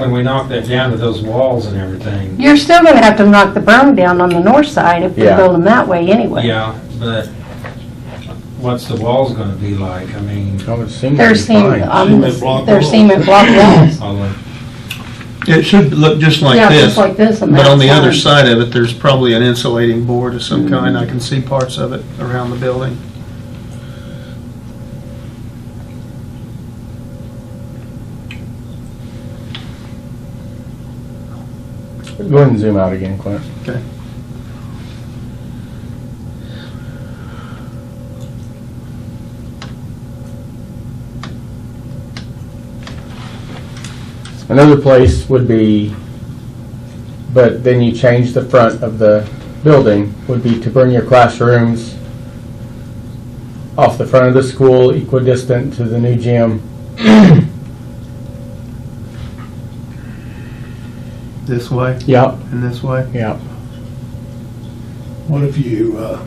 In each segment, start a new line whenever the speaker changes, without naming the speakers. When we knock that down to those walls and everything,
You're still gonna have to knock the berm down on the north side if you
Yeah.
build them that way anyway.
yeah, but what's the walls gonna be like? I mean,
I would assume
They're
it'd be
cement,
fine.
um,
Cement block
they're
walls.
cement block walls.
all of,
It should look just
Yeah,
like
just
this,
like this on
but on the
that
other side of it, there's probably an insulating board of some kind. I can see parts of it around the building.
Go ahead and zoom out again, Clint.
Okay.
Another place would be, but then you change the front of the building, would be to bring your classrooms off the front of the school, equidistant to the new gym.
This way
Yep,
and this way.
yep.
What if you uh,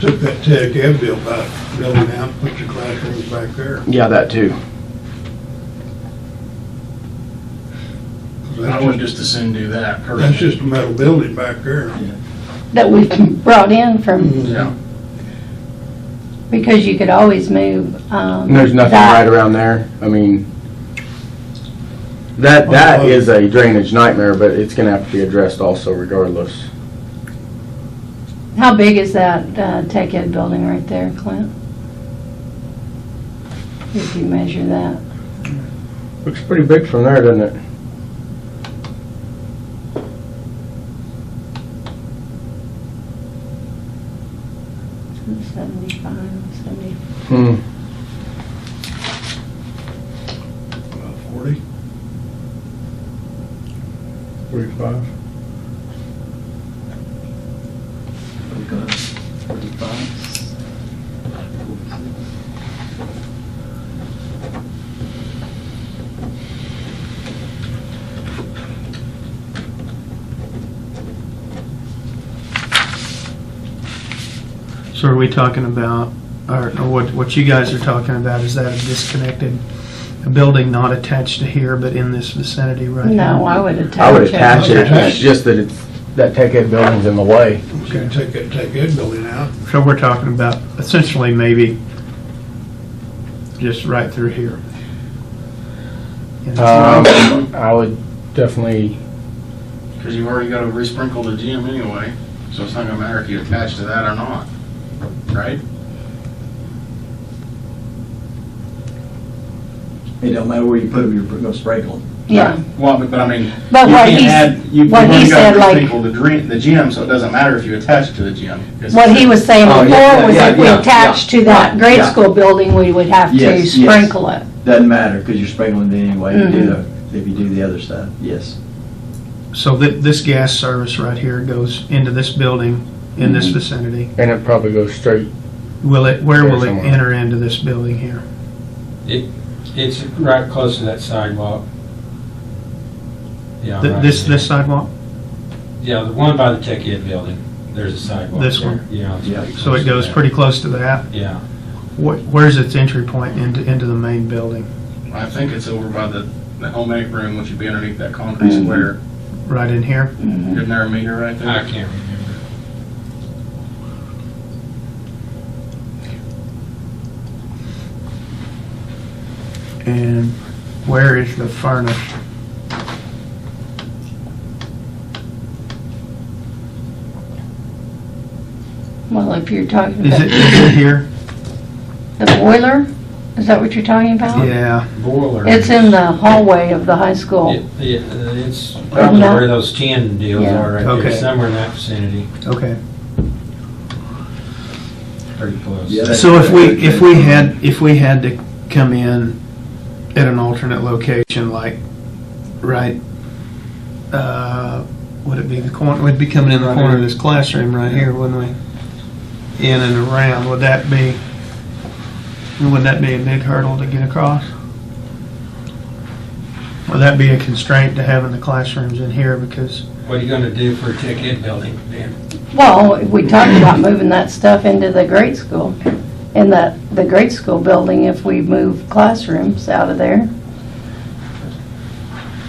took that tech ed bill back, building out, put your classrooms back there?
Yeah, that too.
'Cause
I
That's
would
just,
just as soon do that
that's
personally.
just a metal building back there.
That we've brought in from,
Yeah,
because you could always move, um.
And there's nothing
that-
right around there. I mean, that, that is a drainage nightmare, but it's gonna have to be addressed also regardless.
How big is that, uh, tech ed building right there, Clint? If you measure that.
Looks pretty big from there, doesn't it?
Seventy-five, seventy.
Hmm.
About Forty?
Forty-five.
we've got 45.
So are we talking about, or or what, what you guys are talking about, is that a disconnected, a building not attached to here, but in this vicinity right
No,
now?
I would attach it.
I would attach it,
Okay.
it's just that it's, that tech ed building's in the way.
You can take that tech ed building out.
So we're talking about essentially maybe just right through here. And it's not-
Um, I would definitely,
Because you've already got to resprinkle the gym anyway, so it's not gonna matter if you attach to that or not, right?
It don't matter where you put them, you're gonna sprinkle them.
Yeah,
Well, but but I mean,
But
you
what
can't
he's-
add, you- you've
what he
already got
said,
to
like-
resprinkle the dream, the gym, so it doesn't matter if you attach it to the gym. It's-
what he was saying
Oh, yeah,
before was
yeah,
if we
yeah,
attached
yeah.
to that grade
Yeah.
school building, we would have to
Yes, yes.
sprinkle it.
Doesn't matter, because you're sprinkling it anyway, if you do
Mm-hmm.
the, if you do the other side, yes.
So thi- this gas service right here goes into this building, in this
Mhm.
Mm-hmm.
vicinity.
and it probably goes straight,
Will it, where will it
Somewhere.
enter into this building here?
it's right close to that sidewalk. Yeah,
Th-
right
This,
there.
this sidewalk?
Yeah, the one by the tech ed building, there's a sidewalk.
This
there.
one?
Yeah. it's
Yeah.
pretty
So
close
it
to
goes
that.
pretty close to that?
Yeah,
Wh- Where's its entry point into, into the main building?
I think it's over by the, the home ec room, which would be underneath that concrete square.
Right in here?
Isn't there a meter right there?
I can't remember.
And where is the furnace?
Well, if you're talking
Is it,
about
is it here?
the boiler, is that what you're talking about?
Yeah,
Boiler.
It's in the hallway of the high school.
It- it- It's probably
No.
where those tin deals
Yeah.
are right there,
Okay.
somewhere in that vicinity,
okay.
pretty close.
Yeah.
So if we, if we had, if we had to come in at an alternate location, like, right, uh, would it be the corner, we'd be coming in the corner of this classroom right here, wouldn't we? In and around, would that be, would that be a big hurdle to get across? Would that be a constraint to having the classrooms in here because
What are you gonna do for a tech ed building, Dan?
Well, we talked about moving that stuff into the grade school, in the, the grade school building, if we move classrooms out of there.